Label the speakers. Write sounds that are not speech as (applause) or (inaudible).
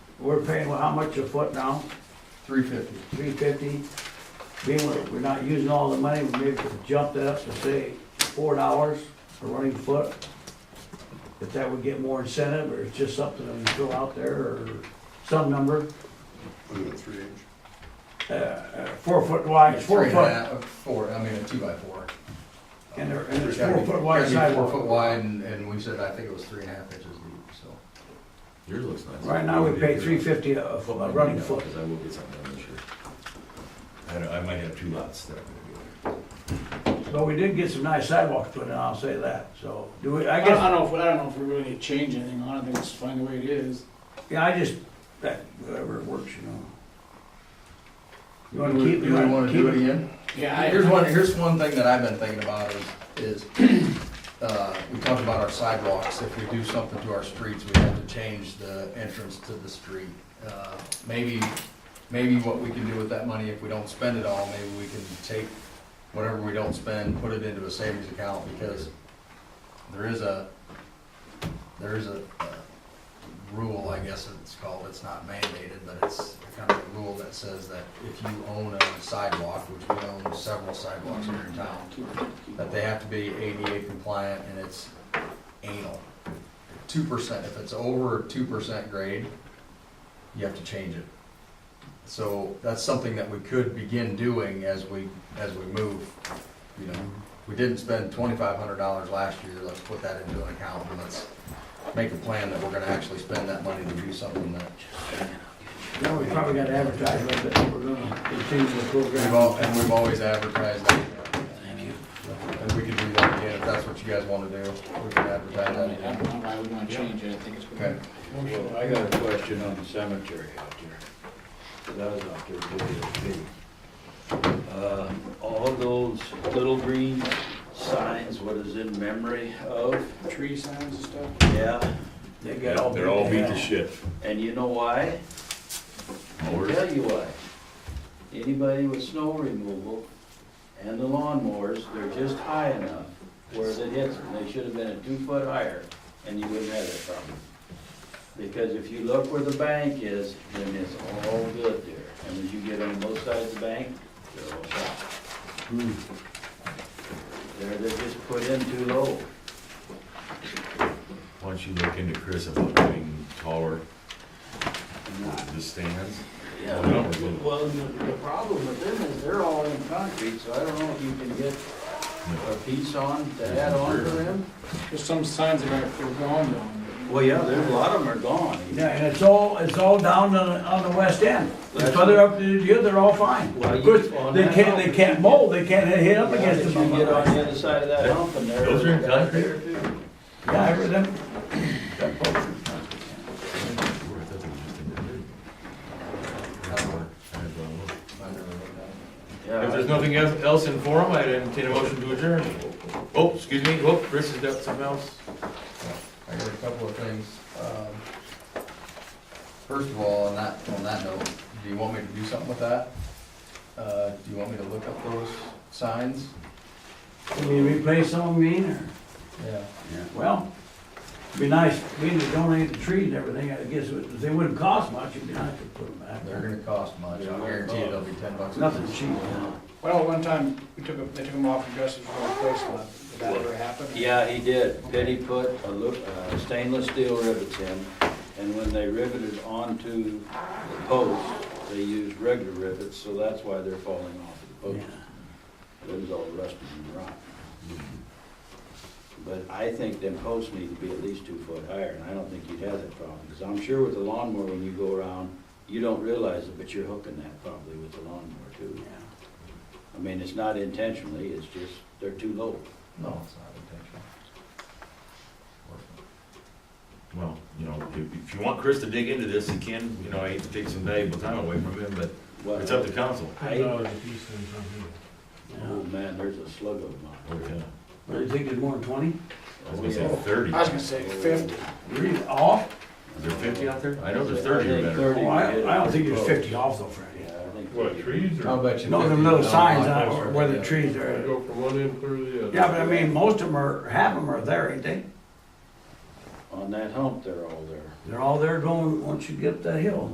Speaker 1: We're paying, well, how much a foot now?
Speaker 2: three fifty.
Speaker 1: Three fifty? Being we're, we're not using all the money, we maybe could jump that up to say four dollars a running foot. If that would get more incentive, or it's just something that we throw out there, or some number,
Speaker 3: Under three inch.
Speaker 1: uh, uh, four foot wide, four
Speaker 2: Three and a
Speaker 1: foot.
Speaker 2: half- uh, Four, I mean, a two by four.
Speaker 1: And there, and there's
Speaker 2: It's gotta
Speaker 1: four
Speaker 2: be-
Speaker 1: foot wide
Speaker 2: gotta be Four foot
Speaker 1: sidewalk.
Speaker 2: wide, and, and we said, I think it was three and a half inches deep, so.
Speaker 4: Yours looks nice.
Speaker 1: Right now, we pay three fifty a, a foot- a running foot.
Speaker 4: Because I will get something done this year. I don't, I might have two lots that I'm gonna do.
Speaker 1: But we did get some nice sidewalks put in, I'll say that, so, do we, I
Speaker 5: I guess, I
Speaker 1: guess,
Speaker 5: don't know if, I don't know if we really need to change anything on it, I think it's fine the way it is.
Speaker 1: yeah, I just, that, whatever it works, you know. You wanna
Speaker 2: Do we-
Speaker 1: keep-
Speaker 2: do
Speaker 1: you
Speaker 2: we
Speaker 1: wanna
Speaker 2: wanna
Speaker 1: keep
Speaker 2: do it
Speaker 1: it?
Speaker 2: again?
Speaker 5: Yeah, I,
Speaker 2: Here's one, here's one thing that I've been thinking about is, is, (clears throat) uh, we talked about our sidewalks. If we do something to our streets, we have to change the entrance to the street. Uh, Maybe, maybe what we can do with that money, if we don't spend it all, maybe we can take whatever we don't spend, put it into a savings account, because there is a, there is a uh, rule, I guess it's called, it's not mandated, but it's kind of a rule that says that if you own a sidewalk, which we own several sidewalks here in town, that they have to be ADA compliant and it's anal. Two percent, if it's over two percent grade, you have to change it. So that's something that we could begin doing as we, as we move, you know. We didn't spend twenty-five hundred dollars last year, let's put that into an account and let's make a plan that we're gonna actually spend that money to do something that
Speaker 1: No, we probably gotta advertise a little bit, if we're gonna continue the
Speaker 2: We've
Speaker 1: program.
Speaker 2: all, and we've always advertised that. And we could do that again, if that's what you guys wanna do, we can
Speaker 5: I
Speaker 2: advertise that
Speaker 5: don't know
Speaker 2: again.
Speaker 5: why we wanna change it, I think it's.
Speaker 2: Okay,
Speaker 6: Well, I got a question on the cemetery out there, 'cause I was out there doing it too. Uh, All those little green signs, what is in memory of,
Speaker 5: Tree signs and stuff.
Speaker 6: yeah,
Speaker 1: They got all.
Speaker 4: They're all beat
Speaker 1: yeah.
Speaker 4: to shit.
Speaker 6: and you know why? I'll
Speaker 4: Mowers.
Speaker 6: tell you why. Anybody with snow removal and the lawnmowers, they're just high enough where they hit them. They should have been a two foot higher and you wouldn't have that problem. Because if you look where the bank is, then it's all good there. And when you get on both sides of the bank, they're all shot. Hmm. They're, they're just put in too low.
Speaker 4: Why don't you look into Chris about doing taller, the stands?
Speaker 6: Yeah,
Speaker 4: Well, no.
Speaker 6: well, the the problem with them is they're all in concrete, so I don't know if you can get a piece on to add on to them.
Speaker 5: There's some signs that are, they're gone though.
Speaker 6: Well, yeah, there's a lot of them are gone.
Speaker 1: Yeah, and it's all, it's all down on, the- on the west end. The
Speaker 6: That's-
Speaker 1: further up you get, they're all fine.
Speaker 6: Well,
Speaker 1: Of course,
Speaker 6: you- on
Speaker 1: they
Speaker 6: that
Speaker 1: can't, they
Speaker 6: hump,
Speaker 1: can't mold, they can't hit up
Speaker 6: Yeah,
Speaker 1: against
Speaker 6: if
Speaker 1: the
Speaker 6: you get
Speaker 1: bump.
Speaker 6: on the other side of that hump and there.
Speaker 4: Those are in concrete?
Speaker 1: Yeah, I heard them.
Speaker 4: I thought they were just in the dirt. I don't know. I don't know.
Speaker 2: I never looked at
Speaker 6: Yeah,
Speaker 7: If there's nothing else else in forum, I'd entertain a motion to adjourn. Oh, excuse me, oh, Chris has got something else.
Speaker 2: it. I got a couple of things. Um, First of all, on that, on that note, do you want me to do something with that? Uh, do you want me to look up those signs?
Speaker 1: Can we replace some of them, mean, or,
Speaker 2: Yeah.
Speaker 1: well, it'd be nice, we need to donate the trees and everything, I guess, it- they wouldn't cost much, it'd be nice to put them back.
Speaker 2: They're gonna cost much, I guarantee you they'll be ten bucks.
Speaker 1: It's nothing cheap, you know.
Speaker 5: Well, one time, we took, 'em- they took them off the dresses for a place left, did that ever happen?
Speaker 6: Yeah, he did. Betty put a look, uh, stainless steel rivets in, and when they riveted onto the post, they used regular rivets, so that's why they're falling off the post. It was all rusted and rotten. But I think them posts need to be at least two foot higher, and I don't think you'd have that problem, because I'm sure with the lawnmower, when you go around, you don't realize it, but you're hooking that probably with the lawnmower too.
Speaker 1: Yeah.
Speaker 6: I mean, it's not intentionally, it's just, they're too low.
Speaker 2: No, it's not intentional.
Speaker 4: Well, you know, if, if you want Chris to dig into this, he can, you know, I hate to take some valuable time away from him, but
Speaker 6: What-
Speaker 4: it's up to council.
Speaker 6: I,
Speaker 1: Yeah.
Speaker 6: oh man, there's a slug of them
Speaker 4: Oh, yeah.
Speaker 1: What, do you think it's more than twenty?
Speaker 4: I was gonna say thirty.
Speaker 5: I was gonna say fifty.
Speaker 1: Really, off?
Speaker 4: Is there fifty out there? I know there's thirty or better.
Speaker 1: Oh, I, I don't think there's fifty off though, Franny.
Speaker 6: Yeah, I think.
Speaker 8: What, trees
Speaker 2: I'll
Speaker 8: or?
Speaker 2: bet you.
Speaker 1: No, them
Speaker 2: 50
Speaker 1: little
Speaker 2: don't
Speaker 1: signs on
Speaker 2: like those
Speaker 1: it
Speaker 2: right
Speaker 1: where the
Speaker 2: there.
Speaker 1: trees are.
Speaker 8: Go from one end clear to the other.
Speaker 1: Yeah, but I mean, most of them are, half of them are there, ain't they?
Speaker 6: On that hump, they're all there.
Speaker 1: They're all there going, once you get up that hill.